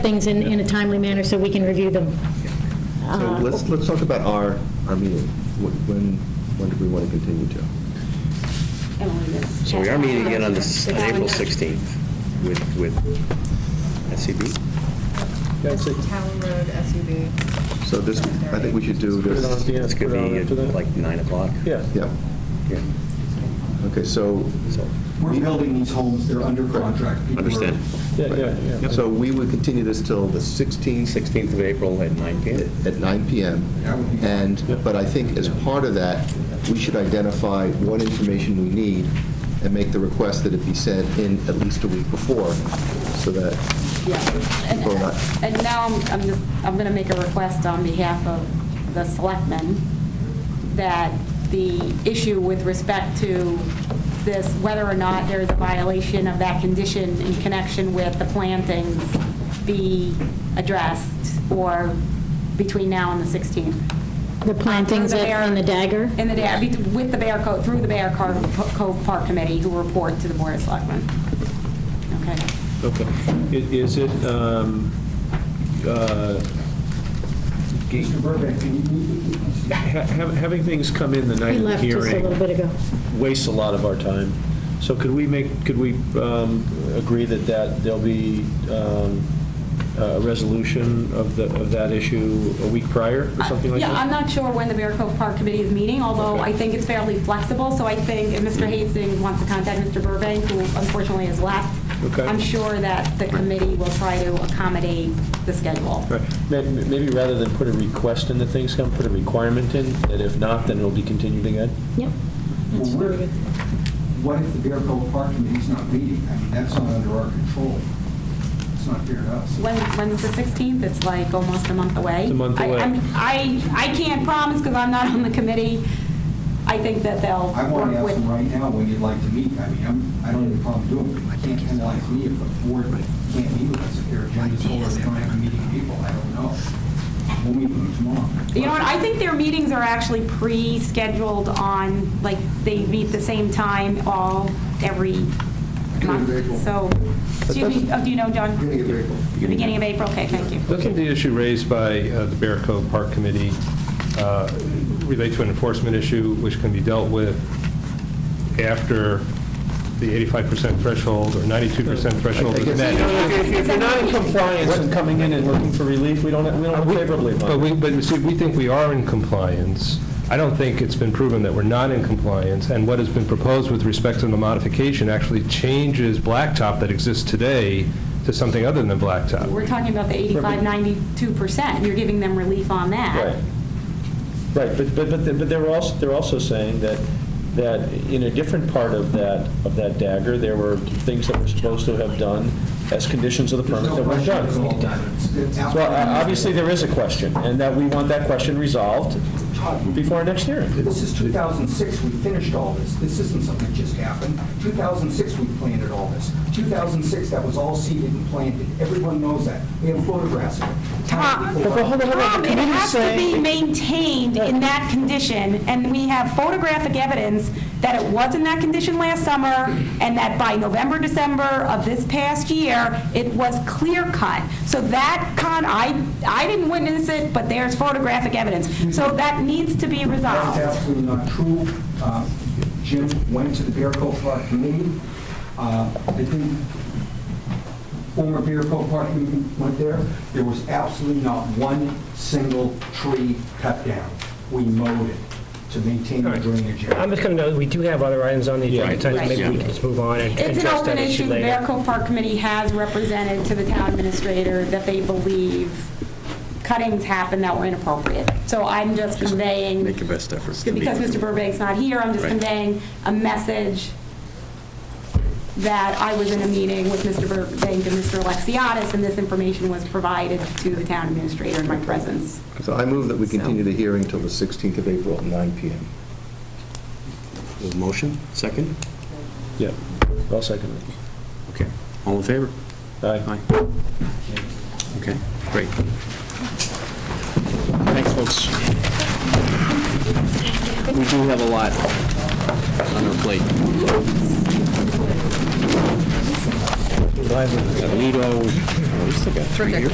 things in, in a timely manner so we can review them. So Uh-huh. Uh, let's, let's talk about our, our meeting. Wh- When, when do we want to continue to? So we are meeting again on this, on April 16th with, with SCB? That's it. Town Road SUV. So this, I think we should do Put it on at this. the end, This put could it on be after at that. like 9 o'clock. Yeah. Yeah, Yeah. okay, so, So, We're building these homes, they're under contract. People are- understand. Yeah, yeah, yeah. so we would continue this till the 16th 16th of April at 9 PM? at 9 PM. And, but I think as part of that, we should identify what information we need and make the request that it be sent in at least a week before, so that Yeah. People are not- And- And now I'm I'm just, I'm going to make a request on behalf of the selectmen that the issue with respect to this, whether or not there is a violation of that condition in connection with the plantings be addressed or between now and the 16th. The plantings Through the at- Bear- in the dagger? In the dagger, with the Bear Cove, through the Bear Cove Cove Park Committee who report to the Board of Selectmen. Okay. Okay. I- Is it, um, uh, g- Mr. Burbank, can you- ha- ha- having things come in the night He of the left just a hearing little bit ago. wastes a lot of our time. So could we make, could we um, agree that that, there'll be um, a resolution of the, of that issue a week prior or something like that? Yeah, I'm not sure when the Bear Cove Park Committee is meeting, although Okay. I think it's fairly flexible, so I think if Mr. Hastings wants to contact Mr. Burbank, who unfortunately has left, Okay. I'm sure that the committee will try to accommodate the schedule. Right. May- Maybe rather than put a request in that things come, put a requirement in, that if not, then it'll be continued again? Yep. well, That's we're- very good. What if the Bear Cove Park Committee's not meeting? I mean, that's not under our control. It's not fair to us. When, when's the 16th? It's like almost a month away. It's a month I- away. I'm- I, I can't promise, because I'm not on the committee. I think that they'll I want to work ask with... them right now when you'd like to meet. I mean, I'm, I don't have a problem doing it. You can't penalize me if the board can't meet with us, if their agenda's full, or they don't have a meeting of people, I don't know. We'll meet with them tomorrow. You know what, I think their meetings are actually pre-scheduled on, like, they meet the same time all, every April. month, so, excuse me, oh, do you know, John? Beginning of April. The Beginning of April, okay, thank you. Doesn't the issue raised by uh, the Bear Cove Park Committee uh, relate to an enforcement issue which can be dealt with after the 85% threshold or 92% threshold is met? If you're not in compliance and coming in and looking for relief, we don't, we don't favorably But we, but you see, we think we are in compliance. I don't think it's been proven that we're not in compliance, and what has been proposed with respect to the modification actually changes blacktop that exists today to something other than blacktop. We're talking about the 85, 92%, you're giving them relief on that. Right, right, but, but, but they- but they're also, they're also saying that, that in a different part of that, of that dagger, there were things that were supposed to have done as conditions of the There's permit no that weren't question done. it's all done. It's- it's out So there. uh, obviously, there is a question, and that we want that question resolved before our next hearing. This is 2006, we finished all this. This isn't something that just happened. 2006, we planted all this. 2006, that was all seeded and planted. Everyone knows that. We have photographs of it. Town people- Tom, Um, it has to be maintained in that condition, and we have photographic evidence that it was in that condition last summer, and that by November, December of this past year, it was clear cut. So that con, I, I didn't witness it, but there's photographic evidence. So that needs to be That's resolved. absolutely not true. Uh, Jim went to the Bear Cove Park Committee. Uh, I think former Bear Cove Park Committee went there. There was absolutely not one single tree cut down. We mowed it to maintain the drainage area. I'm just going to note, that we do have other items on the agenda, Right. so maybe we Right. can just move on and It's an address open that issue issue, the later. Bear Cove Park Committee has represented to the town administrator that they believe cuttings happened that were inappropriate. So I'm just conveying Make your best efforts to meet. because Mr. Burbank's not here, I'm just Right. conveying a message that I was in a meeting with Mr. Burbank and Mr. Alexiadis, and this information was provided to the town administrator in my presence. So I move that we So- continue the hearing till the 16th of April at 9 PM. Motion, second? Yeah, I'll second it. Okay. All in favor? Aye. Okay, great. Thanks, folks. We do have a lot on our plate. Oh, Toledo, we still got three.